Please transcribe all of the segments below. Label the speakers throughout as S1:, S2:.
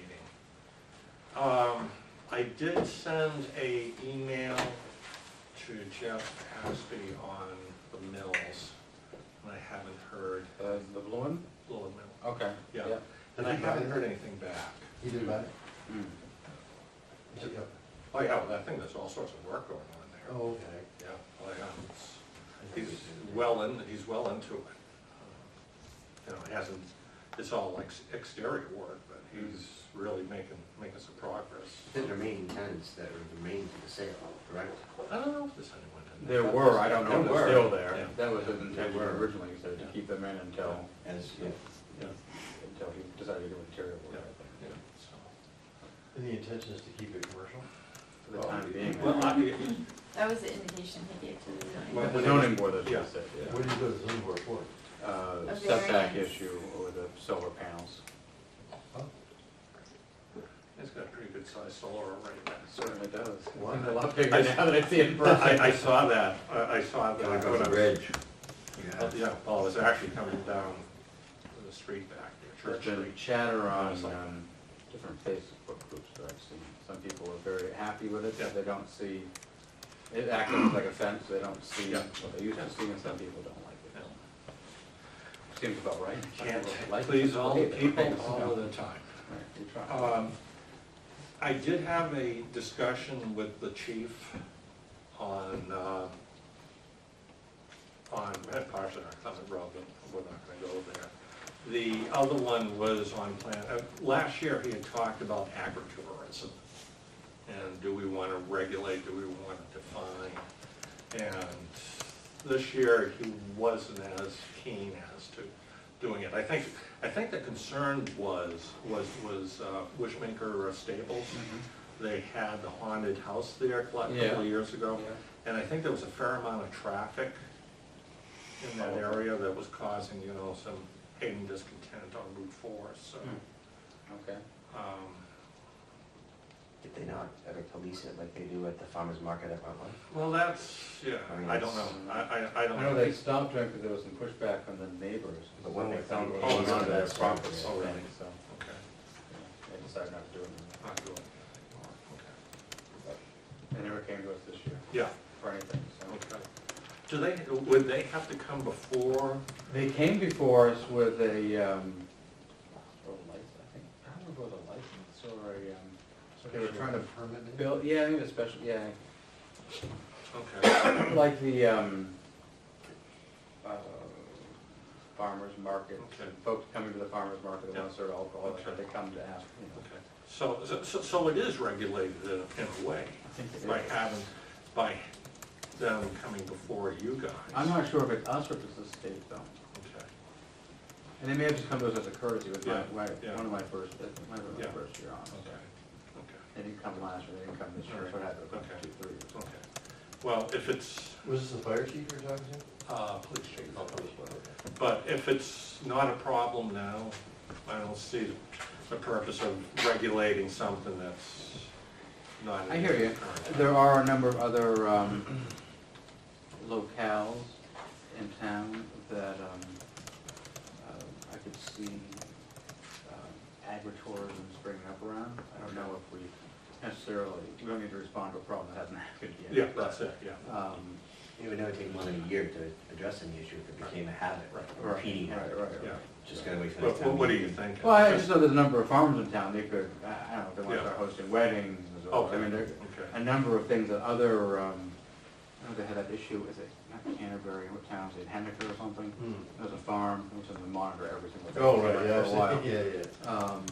S1: Mm-hmm.
S2: Um, I did send a email to Jeff Aspie on the mills, and I haven't heard,
S1: The, Uh, the blue one?
S2: Lowell Mill, uh,
S1: Okay.
S2: yeah. And I haven't heard anything back.
S3: He did about it?
S1: Mm.
S3: He said, "Yep."
S2: Oh, yeah, well, I think there's all sorts of work going on there.
S3: Oh, okay.
S2: Yeah, well, yeah, it's,
S3: I think
S2: he's
S3: he did.
S2: well in, he's well into it. You know, it hasn't, it's all like exterior work, but he's really making, making some progress.
S4: The remaining tenants that are remaining to the sale, correct?
S2: I don't know if there's anyone in there.
S1: There were, I don't know if
S2: There
S1: they're
S2: were.
S1: still
S2: Yeah.
S1: there. That was his intention
S4: They were.
S1: originally, so to
S2: Yeah.
S1: keep them in until,
S4: As,
S2: Yeah,
S1: until he decided to do interior work. I
S2: yeah,
S1: think.
S2: so.
S3: And the intention is to keep it commercial?
S1: For the time being.
S2: Well, I,
S5: That was the indication he gave to the zoning.
S2: Well,
S1: The zoning board has
S2: Yeah.
S1: just said,
S3: What did you go to the zoning board for?
S1: yeah. Uh,
S5: A
S1: setback
S5: variance.
S1: issue or the solar panels.
S2: it's got a pretty good sized solar array.
S1: Certainly does. It's
S3: Wow.
S1: A lot bigger now that I see it in person.
S2: I, I saw that, I, I saw that.
S4: Gotta go
S2: when I
S4: to
S2: was-
S4: Ridge.
S2: Oh, Yeah, well, it's actually coming down the street back there,
S1: There's
S2: Church Street.
S1: been chatter on,
S2: It's like-
S1: um, different Facebook groups that I've seen. Some people are very happy with it,
S2: Yeah.
S1: they don't see, it acts like a fence, they don't see
S2: Yeah.
S1: what they used to see, and some people don't like it. Seems about right.
S2: Can't
S1: Some people like it,
S2: please
S1: some
S2: all the
S1: hate it.
S2: people
S1: Right,
S2: all the time.
S1: we try.
S2: Um, I did have a discussion with the chief on, uh, on Red Parson, or Clement Road, but we're not gonna go there. The other one was on plan, uh, last year he had talked about agritourism. And do we wanna regulate, do we wanna define? And this year he wasn't as keen as to doing it. I think, I think the concern was, was, was uh, Wishmaker Stables.
S1: mm-hmm.
S2: They had the haunted house there a couple
S1: Yeah.
S2: of years ago.
S1: Yeah.
S2: And I think there was a fair amount of traffic in that
S1: Oh.
S2: area that was causing, you know, some hate and discontent on Route Four, so.
S1: Hmm. Okay.
S2: um,
S4: Did they not ever police it like they do at the farmer's market at Rutland?
S2: Well, that's, yeah, I don't know, I, I, I don't
S1: I
S2: know.
S1: know they stopped trying because there was some pushback from the neighbors.
S4: But when they found
S1: They
S4: it
S1: found
S4: was
S1: it
S4: on
S1: onto
S4: their
S1: their property,
S4: property,
S1: I
S2: already.
S1: think, so,
S2: Okay,
S1: yeah, they decided not to do it.
S2: not doing it.
S1: They never came to us this year
S2: Yeah,
S1: for anything, so.
S2: okay. Do they, would they have to come before?
S1: They came before us with a, um, or a license, I think, I don't know if it was a license or a, um, so they were trying to
S3: permit it?
S1: build, yeah, I think it was special, yeah,
S2: Okay,
S1: like the, um, uh, farmer's market,
S2: Okay.
S1: folks coming to the farmer's market, they want to serve alcohol, that's what
S2: Okay.
S1: they come to ask, you know.
S2: okay. So, so, so it is regulated in in a way,
S1: I think it
S2: by
S1: is.
S2: having, by them coming before you guys.
S1: I'm not sure if it's us or if it's the state though,
S2: Okay,
S1: and they may have just come to us as a courtesy, with my,
S2: Yeah,
S1: my,
S2: yeah.
S1: one of my first, it might have been
S2: Yeah.
S1: my first year on, so.
S2: okay, okay.
S1: They didn't come last year, they didn't come this year, so I had to come
S2: Okay.
S1: two, three years.
S2: Okay, well, if it's,
S3: Was this the fire chief you were talking to?
S2: uh, please check it out. But if it's not a problem now, I don't see the- the purpose of regulating something that's not. in
S1: I hear you.
S2: the current-
S1: There are a number of other um, locales in town that um, uh, I could see um, agritourism's bringing up around. I don't know if we necessarily, we don't need to respond to a problem that hasn't happened yet.
S2: Yeah, that's it, yeah.
S1: Um,
S4: It would never take more than a year to address any issue if it became a habit, a
S1: Right,
S4: repeating
S1: right,
S4: habit.
S1: right, right.
S2: Yeah.
S4: Just gotta wait for the
S2: What, what-
S4: next time.
S2: what do you think?
S1: Well, I just know there's a number of farms in town, they could, I I don't know, if they want
S2: Yeah. Oh,
S1: to start hosting weddings or,
S2: Okay,
S1: I mean, there,
S2: okay.
S1: a number of things that other, um, I know they had that issue, is it not Canterbury, what town is it, Henniker or something? There's a farm, which is to monitor every single thing.
S3: Oh, right, yeah, I
S1: For a
S3: was
S1: while.
S3: thinking, yeah, yeah.
S1: Um,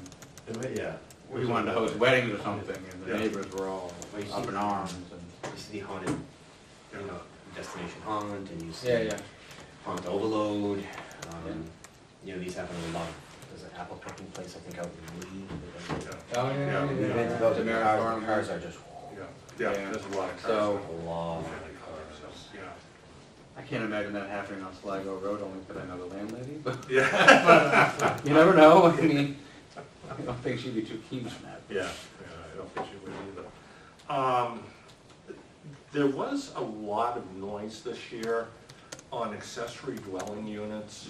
S3: The way- Yeah.
S1: we wanted to host weddings or something, and the
S2: Yeah.
S1: neighbors were all
S4: Well, you
S1: up
S4: see-
S1: in arms and.
S4: You see the haunted, you know, destination haunt and you see.
S1: Yeah, yeah.
S4: Haunt overload, um, you know, these happen a lot. There's an apple picking place, I think, out in Lee. that does it.
S1: Oh,
S2: yeah, yeah, yeah.
S4: Events,
S1: The
S4: those
S1: Merritt
S4: cars,
S1: Farm.
S4: the cars are just.
S2: Yeah, yeah,
S1: Yeah.
S2: there's a lot of cars.
S1: So-
S4: A lot of
S2: Really cars,
S4: cars.
S2: so, Yeah.
S1: I can't imagine that happening on Sligo Road only because I know the landlady, but
S2: Yeah,
S1: you never know, I mean, I don't think she'd be too keen on that.
S2: yeah, yeah, I don't think you would either. Um, There was a lot of noise this year on accessory dwelling units.